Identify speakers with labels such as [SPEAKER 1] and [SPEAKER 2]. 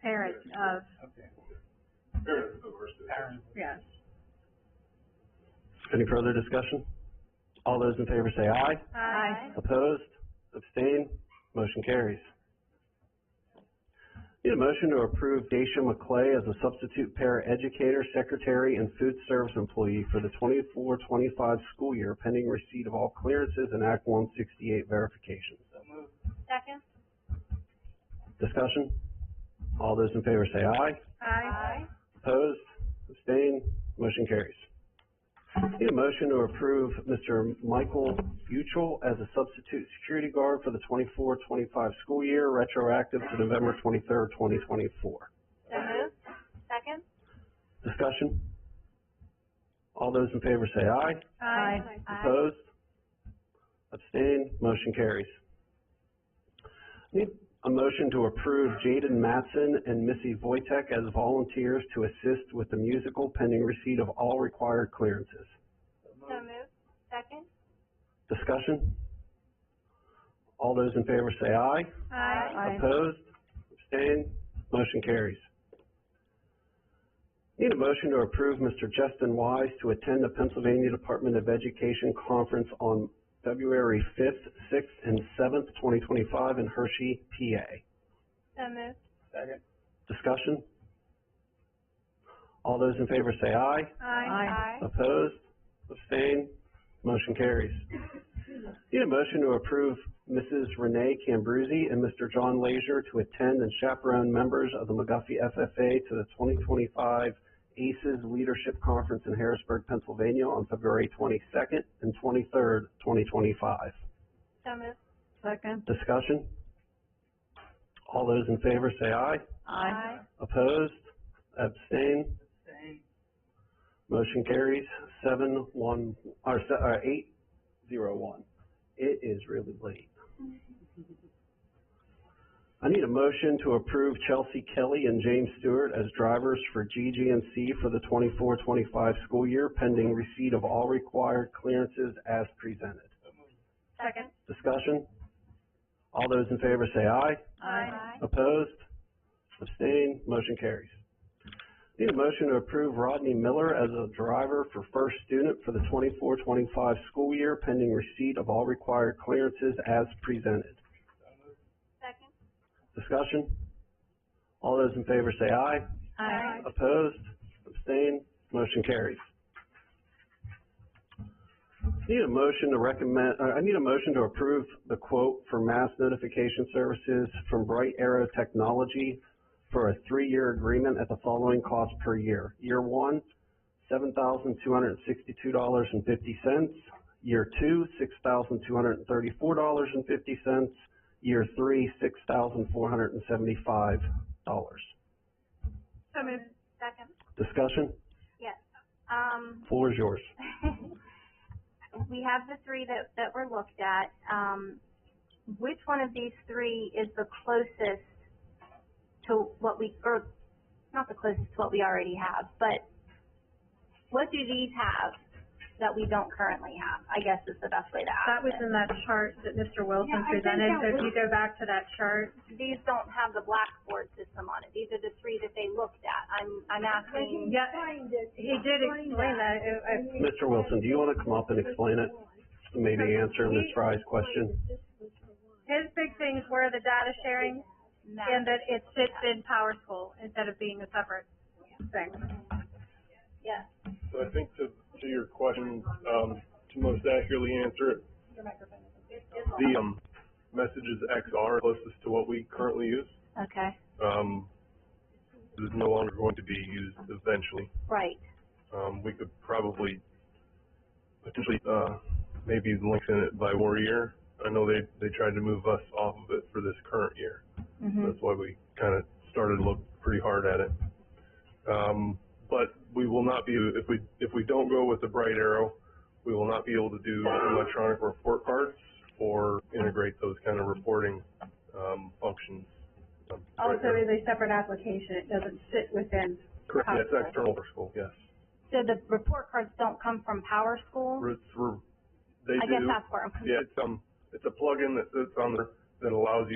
[SPEAKER 1] parent of,
[SPEAKER 2] Okay. Parent.
[SPEAKER 1] yeah.
[SPEAKER 3] Any further discussion? All those in favor say aye.
[SPEAKER 1] Aye.
[SPEAKER 3] Opposed? Abstained? Motion carries. Need a motion to approve Daisha McClay as a substitute para educator, secretary, and food service employee for the 24-25 school year pending receipt of all clearances and Act one sixty-eight verifications.
[SPEAKER 1] Second?
[SPEAKER 3] Discussion? All those in favor say aye.
[SPEAKER 1] Aye.
[SPEAKER 3] Opposed? Abstained? Motion carries. Need a motion to approve Mr. Michael Buchel as a substitute security guard for the 24-25 school year, retroactive to November twenty-third, twenty twenty-four.
[SPEAKER 1] So moved. Second?
[SPEAKER 3] Discussion? All those in favor say aye.
[SPEAKER 1] Aye.
[SPEAKER 3] Opposed? Abstained? Motion carries. Need a motion to approve Jaden Mattson and Missy Voitek as volunteers to assist with the musical pending receipt of all required clearances.
[SPEAKER 1] So moved. Second?
[SPEAKER 3] Discussion? All those in favor say aye.
[SPEAKER 1] Aye.
[SPEAKER 3] Opposed? Abstained? Motion carries. Need a motion to approve Mr. Justin Wise to attend the Pennsylvania Department of Education Conference on February fifth, sixth, and seventh, twenty twenty-five in Hershey, PA.
[SPEAKER 1] So moved.
[SPEAKER 2] Second.
[SPEAKER 3] Discussion? All those in favor say aye.
[SPEAKER 1] Aye.
[SPEAKER 3] Opposed? Abstained? Motion carries. Need a motion to approve Mrs. Renee Cambruzzi and Mr. John Leisure to attend and chaperone members of the McGuffey FFA to the twenty twenty-five ACES Leadership Conference in Harrisburg, Pennsylvania on February twenty-second and twenty-third, twenty twenty-five.
[SPEAKER 1] So moved.
[SPEAKER 4] Second.
[SPEAKER 3] Discussion? All those in favor say aye. Opposed? Abstained?
[SPEAKER 2] Same.
[SPEAKER 3] Motion carries seven one, or se- or eight zero one. It is really late. I need a motion to approve Chelsea Kelly and James Stewart as drivers for GGMC for the 24-25 school year pending receipt of all required clearances as presented.
[SPEAKER 1] Second?
[SPEAKER 3] Discussion? All those in favor say aye.
[SPEAKER 1] Aye.
[SPEAKER 3] Opposed? Abstained? Motion carries. Need a motion to approve Rodney Miller as a driver for first student for the 24-25 school year pending receipt of all required clearances as presented.
[SPEAKER 1] Second?
[SPEAKER 3] Discussion? All those in favor say aye.
[SPEAKER 1] Aye.
[SPEAKER 3] Opposed? Abstained? Motion carries. Need a motion to recommend, uh, I need a motion to approve the quote for mass notification services from Bright Arrow Technology for a three-year agreement at the following cost per year. Year one, seven thousand two hundred and sixty-two dollars and fifty cents. Year two, six thousand two hundred and thirty-four dollars and fifty cents. Year three, six thousand four hundred and seventy-five dollars.
[SPEAKER 1] So moved. Second?
[SPEAKER 3] Discussion?
[SPEAKER 1] Yes. Um,
[SPEAKER 3] Floor is yours.
[SPEAKER 1] we have the three that, that were looked at. Um, which one of these three is the closest to what we, or not the closest to what we already have, but what do these have that we don't currently have? I guess is the best way to ask
[SPEAKER 4] That was
[SPEAKER 1] it.
[SPEAKER 4] in that chart that Mr.
[SPEAKER 1] Yeah,
[SPEAKER 4] Wilson
[SPEAKER 1] I think
[SPEAKER 4] presented,
[SPEAKER 1] that
[SPEAKER 4] so if
[SPEAKER 1] was-
[SPEAKER 4] you go back to that chart,
[SPEAKER 1] These don't have the blackboard system on it. These are the three that they looked at. I'm, I'm asking.
[SPEAKER 4] yeah, he did explain that, It- it-
[SPEAKER 3] Mr. Wilson, do you want to come up and explain it? Maybe answer Ms. Fry's question?
[SPEAKER 4] his big things were the data sharing and that it sits in Power School instead of being a separate thing.
[SPEAKER 1] Yes.
[SPEAKER 5] So I think to, to your question, um, to most accurately answer it, the, um, messages XR closest to what we currently use,
[SPEAKER 1] Okay.
[SPEAKER 5] um, is no longer going to be used eventually.
[SPEAKER 1] Right.
[SPEAKER 5] Um, we could probably potentially, uh, maybe lengthen it by one year. I know they, they tried to move us off of it for this current year.
[SPEAKER 1] Mhm.
[SPEAKER 5] That's why we kind of started to look pretty hard at it. Um, but we will not be, if we, if we don't go with the bright arrow, we will not be able to do electronic report cards or integrate those kind of reporting, um, functions. Um, Bright
[SPEAKER 4] Also,
[SPEAKER 5] Arrow-
[SPEAKER 4] is a separate application, it doesn't sit within,
[SPEAKER 5] Correct, yes, external for school, yes.
[SPEAKER 1] So the report cards don't come from Power School?
[SPEAKER 5] Re- re- They
[SPEAKER 1] I guess
[SPEAKER 5] do,
[SPEAKER 1] that's where I'm confused.
[SPEAKER 5] yeah, it's, um, it's a plugin that sits on there that allows you